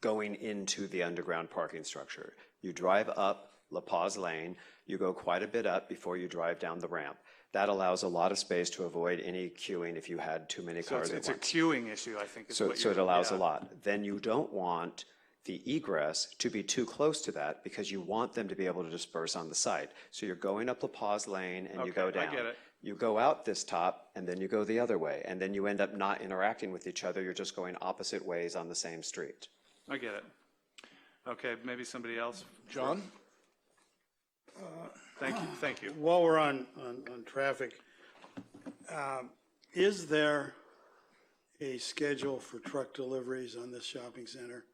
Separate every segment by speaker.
Speaker 1: going into the underground parking structure. You drive up La Paz Lane, you go quite a bit up before you drive down the ramp. That allows a lot of space to avoid any queuing if you had too many
Speaker 2: So it's,
Speaker 1: cars at
Speaker 2: it's a
Speaker 1: once.
Speaker 2: queuing issue, I think, is
Speaker 1: So,
Speaker 2: what
Speaker 1: so
Speaker 2: you're.
Speaker 1: it allows a
Speaker 2: yeah.
Speaker 1: lot. Then you don't want the egress to be too close to that because you want them to be able to disperse on the site. So you're going up La Paz Lane and you go
Speaker 2: Okay, I
Speaker 1: down.
Speaker 2: get it.
Speaker 1: You go out this top and then you go the other way, and then you end up not interacting with each other. You're just going opposite ways on the same street.
Speaker 2: I get it. Okay, maybe somebody else.
Speaker 3: John?
Speaker 2: Thank you, thank you.
Speaker 4: While we're on, on, on traffic, um, is there a schedule for truck deliveries on this shopping center?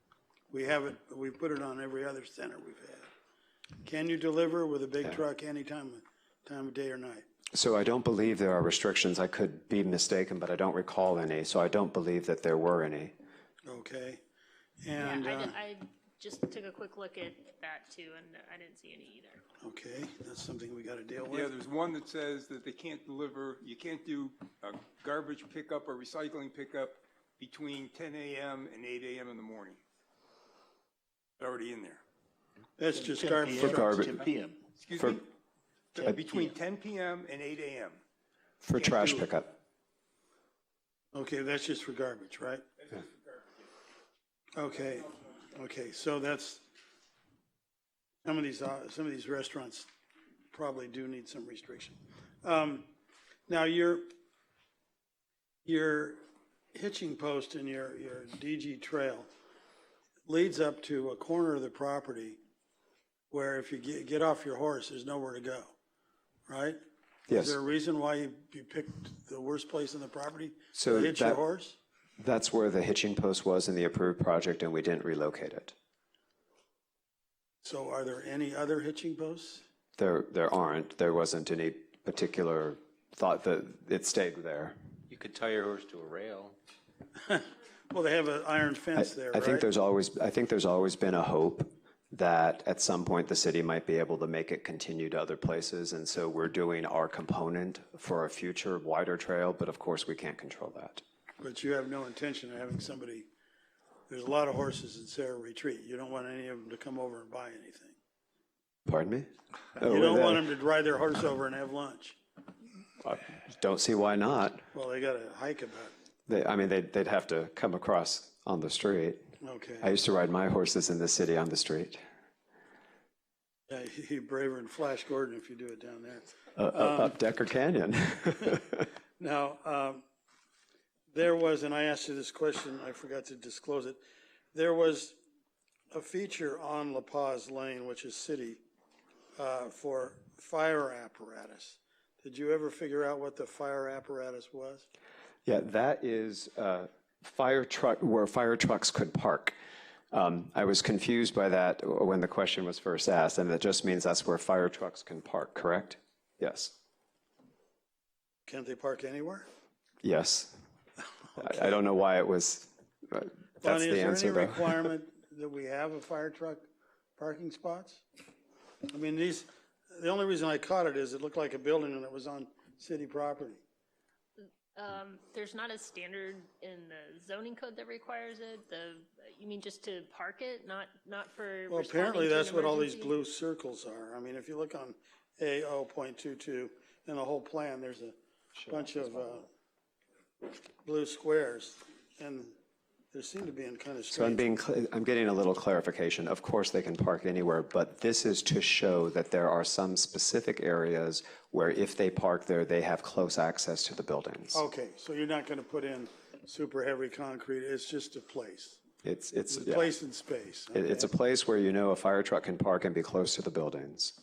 Speaker 4: We have it, we put it on every other center we've had. Can you deliver with a big truck any time, time of day or night?
Speaker 1: So I don't believe there are restrictions. I could be mistaken, but I don't recall any, so I don't believe that there were any.
Speaker 4: Okay?
Speaker 5: I,
Speaker 4: And, uh,
Speaker 5: did- I just took a quick look at that too, and uh, I didn't see any either.
Speaker 4: okay, that's something we gotta deal
Speaker 6: Yeah,
Speaker 4: with.
Speaker 6: there's one that says that they can't deliver, you can't do uh, garbage pickup or recycling pickup between 10 a.m. and 8 a.m. in the morning. Already in there.
Speaker 4: That's just garbage.
Speaker 1: For garbage.
Speaker 3: Ten PM.
Speaker 6: Excuse
Speaker 1: For-
Speaker 6: me?
Speaker 3: Ten
Speaker 6: Between 10
Speaker 3: p.m.
Speaker 6: p.m. and 8 a.m.
Speaker 1: For trash
Speaker 6: do it.
Speaker 1: pickup.
Speaker 4: Okay, that's just for garbage, right? Okay, okay, so that's, some of these, uh, some of these restaurants probably do need some restriction. Um, Now, your, your hitching post and your, your DG trail leads up to a corner of the property where if you get, get off your horse, there's nowhere to go, right? Is
Speaker 1: Yes,
Speaker 4: there a reason why you, you picked the worst place on the property?
Speaker 1: So
Speaker 4: To hitch your
Speaker 1: that-
Speaker 4: horse?
Speaker 1: that's where the hitching post was in the approved project, and we didn't relocate it.
Speaker 4: So are there any other hitching posts?
Speaker 1: There, there aren't. There wasn't any particular thought that it stayed there.
Speaker 7: You could tie your horse to a rail.
Speaker 4: Well, they have an iron fence there,
Speaker 1: I think
Speaker 4: right?
Speaker 1: there's always, I think there's always been a hope that at some point the city might be able to make it continue to other places, and so we're doing our component for a future wider trail, but of course, we can't control that.
Speaker 4: But you have no intention of having somebody, there's a lot of horses in Sarah Retreat. You don't want any of them to come over and buy anything.
Speaker 1: Pardon me? Oh,
Speaker 4: You don't
Speaker 1: that-
Speaker 4: want them to ride their horse over and have lunch.
Speaker 1: I Don't see why not.
Speaker 4: Well, they gotta hike about,
Speaker 1: They, I mean, they'd, they'd have to come across on the street. I
Speaker 4: okay.
Speaker 1: used to ride my horses in the city on the street.
Speaker 4: Yeah, You're braver than Flash Gordon if you do it down there.
Speaker 1: Uh, uh, Up Decker Canyon.
Speaker 4: Now, um, there was, and I asked you this question, I forgot to disclose it. There was a feature on La Paz Lane, which is city, uh, for fire apparatus. Did you ever figure out what the fire apparatus was?
Speaker 1: Yeah, that is uh, fire truck, where fire trucks could park. Um, I was confused by that when the question was first asked, and that just means that's where fire trucks can park, correct? Yes,
Speaker 4: Can't they park anywhere?
Speaker 1: yes. I- I don't know why it was, but that's
Speaker 4: Bonnie,
Speaker 1: the
Speaker 4: Is
Speaker 1: answer,
Speaker 4: there any
Speaker 1: though.
Speaker 4: requirement that we have a fire truck parking spots? I mean, these, the only reason I caught it is it looked like a building and it was on city property.
Speaker 5: Um, there's not a standard in the zoning code that requires it. The, you mean just to park it, not, not for
Speaker 4: Well,
Speaker 5: responding
Speaker 4: apparently
Speaker 5: to an
Speaker 4: that's what all these
Speaker 5: emergency?
Speaker 4: blue circles are. I mean, if you look on AO point two-two and the whole plan, there's a bunch of, uh, blue squares and they seem to be in kind of
Speaker 1: So I'm
Speaker 4: strange.
Speaker 1: being, cl- I'm getting a little clarification. Of course, they can park anywhere, but this is to show that there are some specific areas where if they park there, they have close access to the buildings.
Speaker 4: Okay, so you're not gonna put in super heavy concrete, it's just a place,
Speaker 1: It's, it's,
Speaker 4: It's a
Speaker 1: yeah.
Speaker 4: place in space.
Speaker 1: It- It's a place where you know a fire truck can park and be close to the buildings.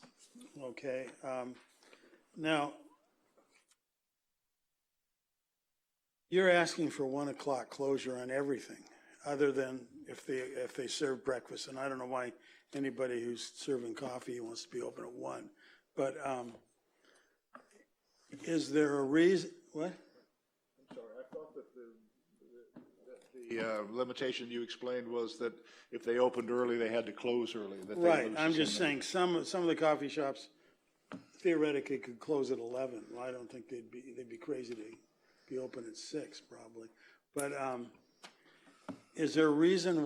Speaker 4: Okay, um, now, you're asking for one o'clock closure on everything, other than if they, if they serve breakfast, and I don't know why anybody who's serving coffee wants to be open at one, but, um, is there a reason, what?
Speaker 3: The uh, limitation you explained was that if they opened early, they had to close early, that they
Speaker 4: Right,
Speaker 3: lose
Speaker 4: I'm
Speaker 3: some
Speaker 4: just
Speaker 3: of-
Speaker 4: saying, some, some of the coffee shops theoretically could close at eleven. I don't think they'd be, they'd be crazy to be open at six, probably. But, um, is there a reason